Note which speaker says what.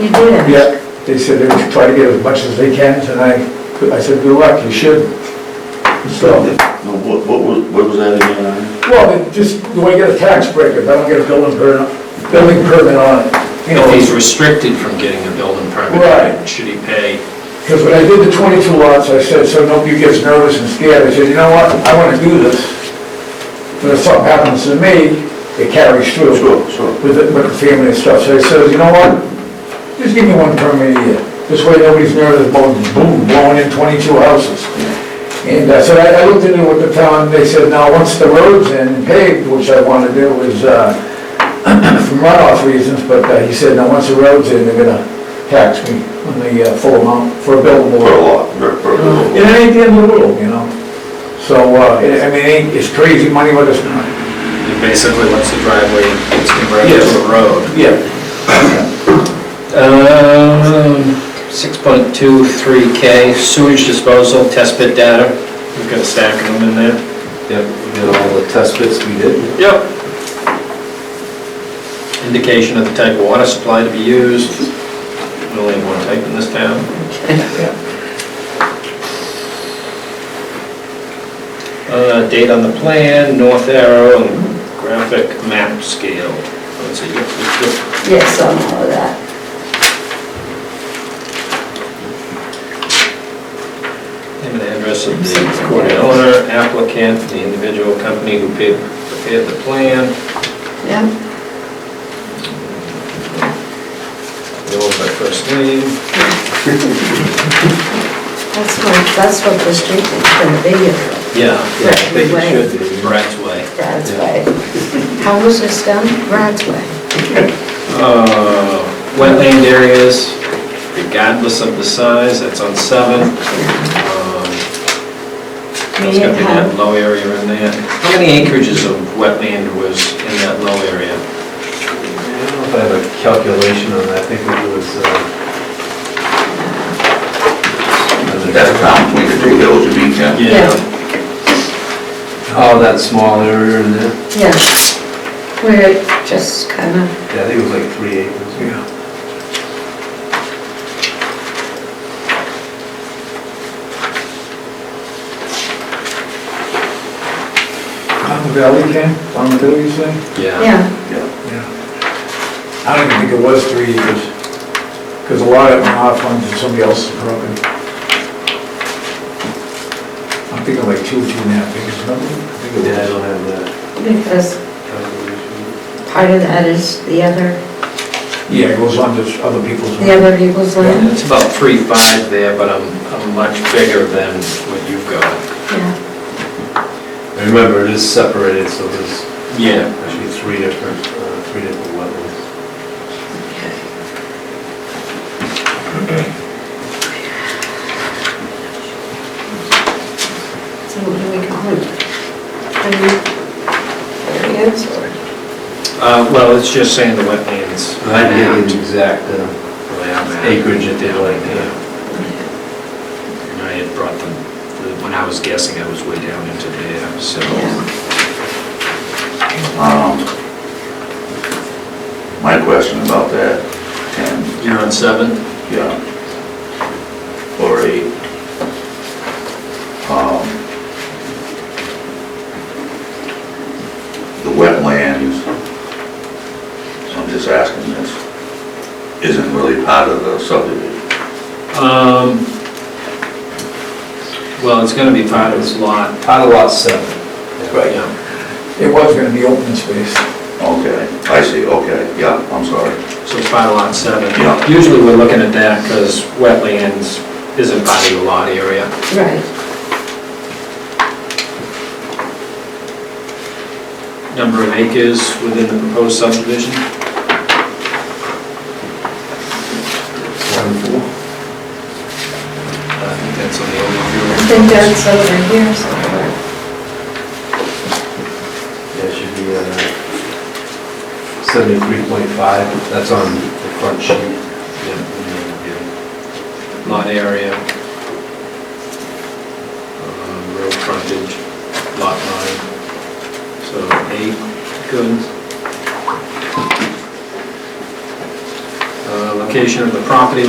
Speaker 1: You did?
Speaker 2: Yeah, they said they would try to get as much as they can tonight. I said, good luck, you should. So,
Speaker 3: No, What, what was, what was that again? Aaron?
Speaker 2: well, it just, you want to get a tax break if I don't get a building permit, building permit on it. You know,
Speaker 4: If he's restricted from getting a building permit,
Speaker 2: Right.
Speaker 4: should he pay?
Speaker 2: because when I did the 22 lots, I said, so nobody gets nervous and scared. I said, you know what, I want to do this. But if something happens to me, it carries through.
Speaker 3: Sure, sure.
Speaker 2: with the, with the family and stuff, so I said, you know what? Just give me one permit a year, this way nobody's nervous about boom, blowing in twenty-two houses. And I said, I, I looked into what the town, they said, now, once the road's in paved, which I wanna do is, uh, from runoff reasons, but uh, he said, now, once the road's in, they're gonna tax me on the uh, full amount for a billable.
Speaker 3: For a lot, for, for a little.
Speaker 2: And it ain't the end of the world, you know? So, uh, it- I mean, it ain't, it's crazy money, but it's not.
Speaker 4: It Basically, once the driveway gets converted
Speaker 2: Yes.
Speaker 4: to a road.
Speaker 2: Yeah.
Speaker 4: Um, 6.23K sewage disposal, test bit data. We've got a stack of them in there.
Speaker 5: Yep, we did all the test bits we did.
Speaker 4: Yep. Indication of the type of water supply to be used. We Only have one type in this town. Uh, Date on the plan, north arrow, and graphic map scale. Let's see, yep, yep, yep.
Speaker 1: Yes, on all of that.
Speaker 4: Name and address of the recorded owner, applicant, the individual company who paid- prepared the plan,
Speaker 1: Yeah,
Speaker 4: know by first name.
Speaker 1: that's what, that's what the street is gonna be, here.
Speaker 4: Yeah,
Speaker 1: yeah, I think it should
Speaker 4: be. Brad's Way.
Speaker 1: Brad's Way. How was this done? Brad's Way.
Speaker 4: Uh, Wetland areas, regardless of the size, that's on seven. Um, That's gonna be that low area in there. How many acreages of wetland was in that low area?
Speaker 5: I don't know if I have a calculation on that, I think it was, uh...
Speaker 3: That's town, we could do those, you mean, yeah.
Speaker 1: Yeah.
Speaker 5: Oh, that small area in there,
Speaker 1: Yeah, where it just kind of,
Speaker 5: yeah, I think it was like three acres.
Speaker 2: Yeah. On the valley, Ken, on the hill, you say?
Speaker 4: Yeah.
Speaker 1: yeah,
Speaker 2: Yeah. I don't even think it was three years, because a lot of it went off onto somebody else's property. I'm thinking like two, two and a half acres, remember? I think
Speaker 5: Yeah, I
Speaker 2: it was.
Speaker 5: don't have that
Speaker 1: because
Speaker 5: calculation.
Speaker 1: part of that is the other,
Speaker 2: Yeah, it goes on to other people's.
Speaker 1: the other people's land.
Speaker 4: It's about three five there, but I'm, I'm much bigger than what you've got.
Speaker 1: Yeah,
Speaker 5: I remember it is separated, so there's
Speaker 4: Yeah.
Speaker 5: actually three different, uh, three different wetlands.
Speaker 1: so what do we call it? Are you- there it is, or?
Speaker 4: Uh, well, it's just saying the wetlands.
Speaker 5: I didn't get the exact uh, acreage at the like, yeah.
Speaker 4: And I had brought them, the- when I was guessing, I was way down into there, so.
Speaker 1: Yeah.
Speaker 3: Um, My question about that, ten,
Speaker 4: You're on seven?
Speaker 3: yeah, or eight. Um, The wetlands, I'm just asking this, isn't really part of the subdivision.
Speaker 4: Um, well, it's gonna be part of this lot.
Speaker 5: Part of lot seven.
Speaker 3: Right.
Speaker 4: Yeah.
Speaker 2: It was gonna be open space.
Speaker 3: Okay, I see, okay, yeah, I'm sorry.
Speaker 4: So it's part of lot seven.
Speaker 3: Yeah.
Speaker 4: Usually we're looking at that because wetlands isn't part of the lot area.
Speaker 1: Right,
Speaker 4: Number of acres within the proposed subdivision? I think that's on the
Speaker 1: I
Speaker 4: overview.
Speaker 1: think that's over here somewhere.
Speaker 5: Yeah, it should be uh, 73.5, that's on the front sheet.
Speaker 4: Lot area. um, Road frontage, lot line. So eight, good. Uh, location of the property